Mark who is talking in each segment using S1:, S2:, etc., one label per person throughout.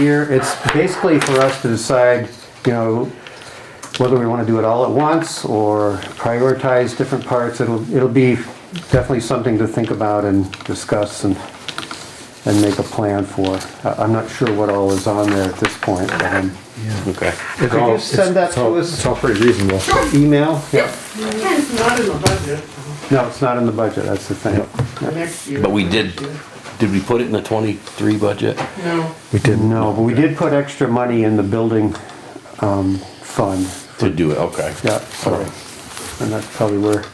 S1: year. It's basically for us to decide, you know, whether we want to do it all at once or prioritize different parts. It'll, it'll be definitely something to think about and discuss and, and make a plan for. I- I'm not sure what all is on there at this point, but um,
S2: Okay.
S1: could you send that to
S3: It's
S1: us,
S3: all pretty reasonable.
S1: email?
S4: It's not in the budget
S1: No, it's not in the budget, that's the thing.
S4: for next year.
S2: But we did, did we put it in the twenty-three budget?
S4: No,
S3: We didn't.
S1: No, but we did put extra money in the building um, fund,
S2: To do it, okay.
S1: yeah, so,
S2: Alright.
S1: and that's probably where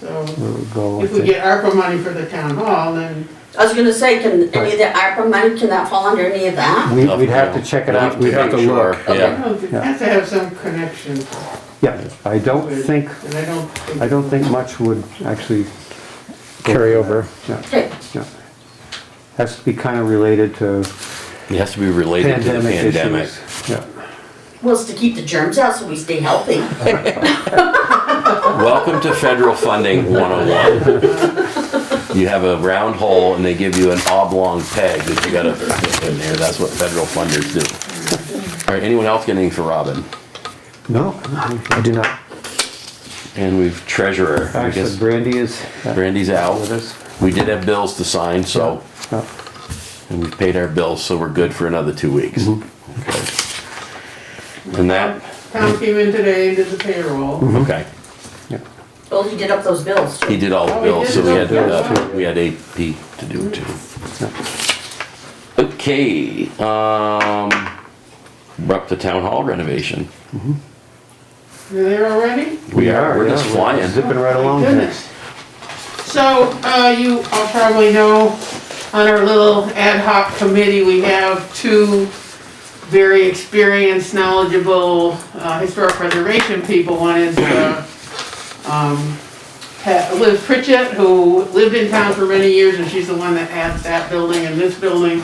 S4: so
S1: it would go. I
S4: if we
S1: think.
S4: get ARPA money for the town hall, then
S5: I was gonna say, can any of the ARPA money, can that fall under any of that?
S1: We- We'd have to check it out.
S3: We'd have to
S2: Make sure,
S3: look.
S4: I
S2: Yeah,
S4: don't, it has to have some connection.
S1: Yeah, I don't
S4: with-
S1: think,
S4: And I don't think.
S1: I don't think much would actually,
S3: Carry over.
S1: yeah,
S5: Okay,
S1: yeah. Has to be kind of related to
S2: it has to be related to the
S1: pandemic
S2: pandemic.
S1: issues. Yeah,
S5: well, it's to keep the germs out so we stay healthy.
S2: Welcome to federal funding one-on-one. You have a round hole and they give you an oblong peg that you gotta fit in there, that's what federal funders do. Alright, anyone else got anything for Robin?
S1: no, I do not.
S2: And we've treasurer, I
S1: Actually,
S2: guess
S1: Brandy is.
S2: Brandy's
S1: With
S2: out.
S1: us.
S2: We did have bills to sign, so,
S1: Yeah.
S2: and we've paid our bills, so we're good for another two weeks. Okay. And that,
S4: Tom came in today and did the payroll.
S2: okay.
S5: Well, he did up those bills
S2: He
S5: too.
S2: did all the
S4: Oh, he
S2: bills,
S4: did
S2: so we
S4: all
S2: had,
S4: the bills,
S2: uh, we had AP to do too. Okay, um, we're up to town hall renovation.
S4: You're there already?
S2: We are, we're
S1: yeah,
S2: just flying.
S1: Zipping right
S4: My
S1: along here.
S4: goodness. So, uh, you all probably know, on our little ad hoc committee, we have two very experienced, knowledgeable, uh, historic preservation people. One is, uh, um, Pat- Liz Pritchett, who lived in town for many years, and she's the one that had that building and this building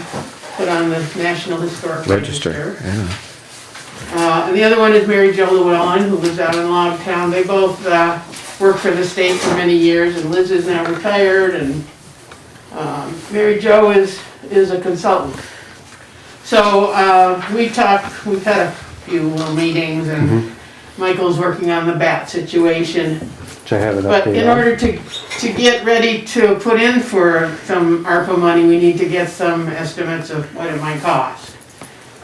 S4: put on the National Historic
S3: Register,
S4: Register. Uh, and the other one is Mary Jo Llewellyn, who lives out in Log Town. They both, uh, worked for the state for many years, and Liz is now retired, and, um, Mary Jo is, is a consultant. So, uh, we talked, we've had a few little meetings, and Michael's working on the bat situation.
S1: Which I have it
S4: But in
S1: updated.
S4: order to, to get ready to put in for some ARPA money, we need to get some estimates of what it might cost.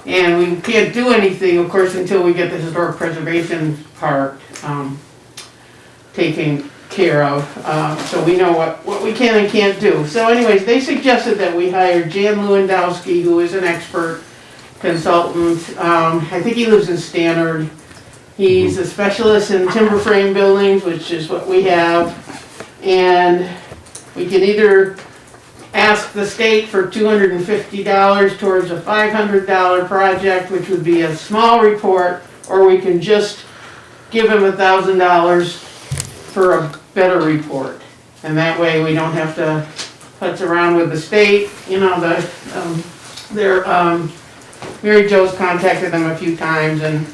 S4: And we can't do anything, of course, until we get the historic preservation part, um, taken care of, um, so we know what, what we can and can't do. So anyways, they suggested that we hire Jan Lewandowski, who is an expert consultant, um, I think he lives in Stannard. He's a specialist in timber frame buildings, which is what we have. And we can either ask the state for two hundred and fifty dollars towards a five hundred dollar project, which would be a small report, or we can just give him a thousand dollars for a better report. And that way, we don't have to putz around with the state, you know, the, um, their, um, Mary Jo's contacted them a few times and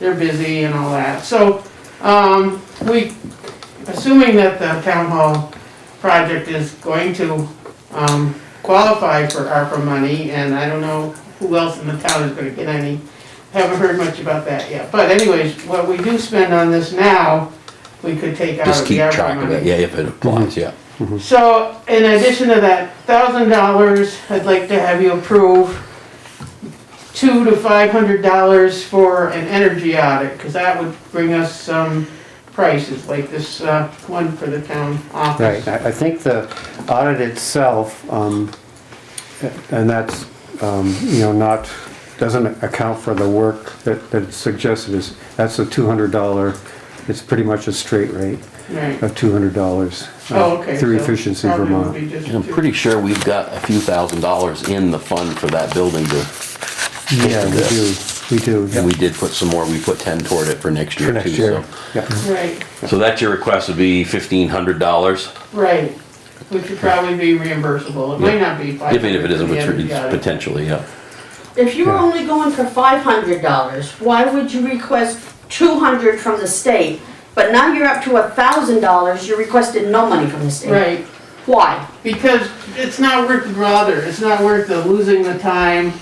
S4: they're busy and all that. So, um, we, assuming that the town hall project is going to, um, qualify for ARPA money, and I don't know who else in the town is gonna get any, haven't heard much about that yet. But anyways, what we do spend on this now, we could take out
S2: Just
S4: of the
S2: keep
S4: ARPA money.
S2: track of it, yeah, if it applies, yeah.
S4: So in addition to that thousand dollars, I'd like to have you approve two to five hundred dollars for an energy audit, because that would bring us some prices, like this uh, one for the town office.
S1: Right, I, I think the audit itself, um, and that's, um, you know, not, doesn't account for the work that, that it's suggested is, that's a two hundred dollar, it's pretty much a straight rate
S4: Right.
S1: of two hundred dollars. uh,
S4: Oh, okay.
S1: Through
S4: so
S1: Uh, Efficiency
S4: probably would
S1: Vermont.
S4: be just
S2: And I'm
S4: two.
S2: pretty sure we've got a few thousand dollars in the fund for that building to,
S1: Yeah, we do, we do. yeah.
S2: and we did put some more, we put ten toward it for next
S1: For
S2: year too,
S1: next year,
S2: so.
S1: yeah,
S4: Right,
S2: So that's your request would be fifteen hundred dollars,
S4: right, which would probably be reimbursable. It might not be five
S2: if it
S4: hundred.
S2: if it isn't,
S4: for the
S2: which
S4: energy
S2: it's
S4: audit.
S2: potentially, yeah.
S5: If you were only going for five hundred dollars, why would you request two hundred from the state? But now you're up to a thousand dollars, you requested no money from the state.
S4: Right.
S5: Why?
S4: Because it's not worth the bother, it's not worth the losing the time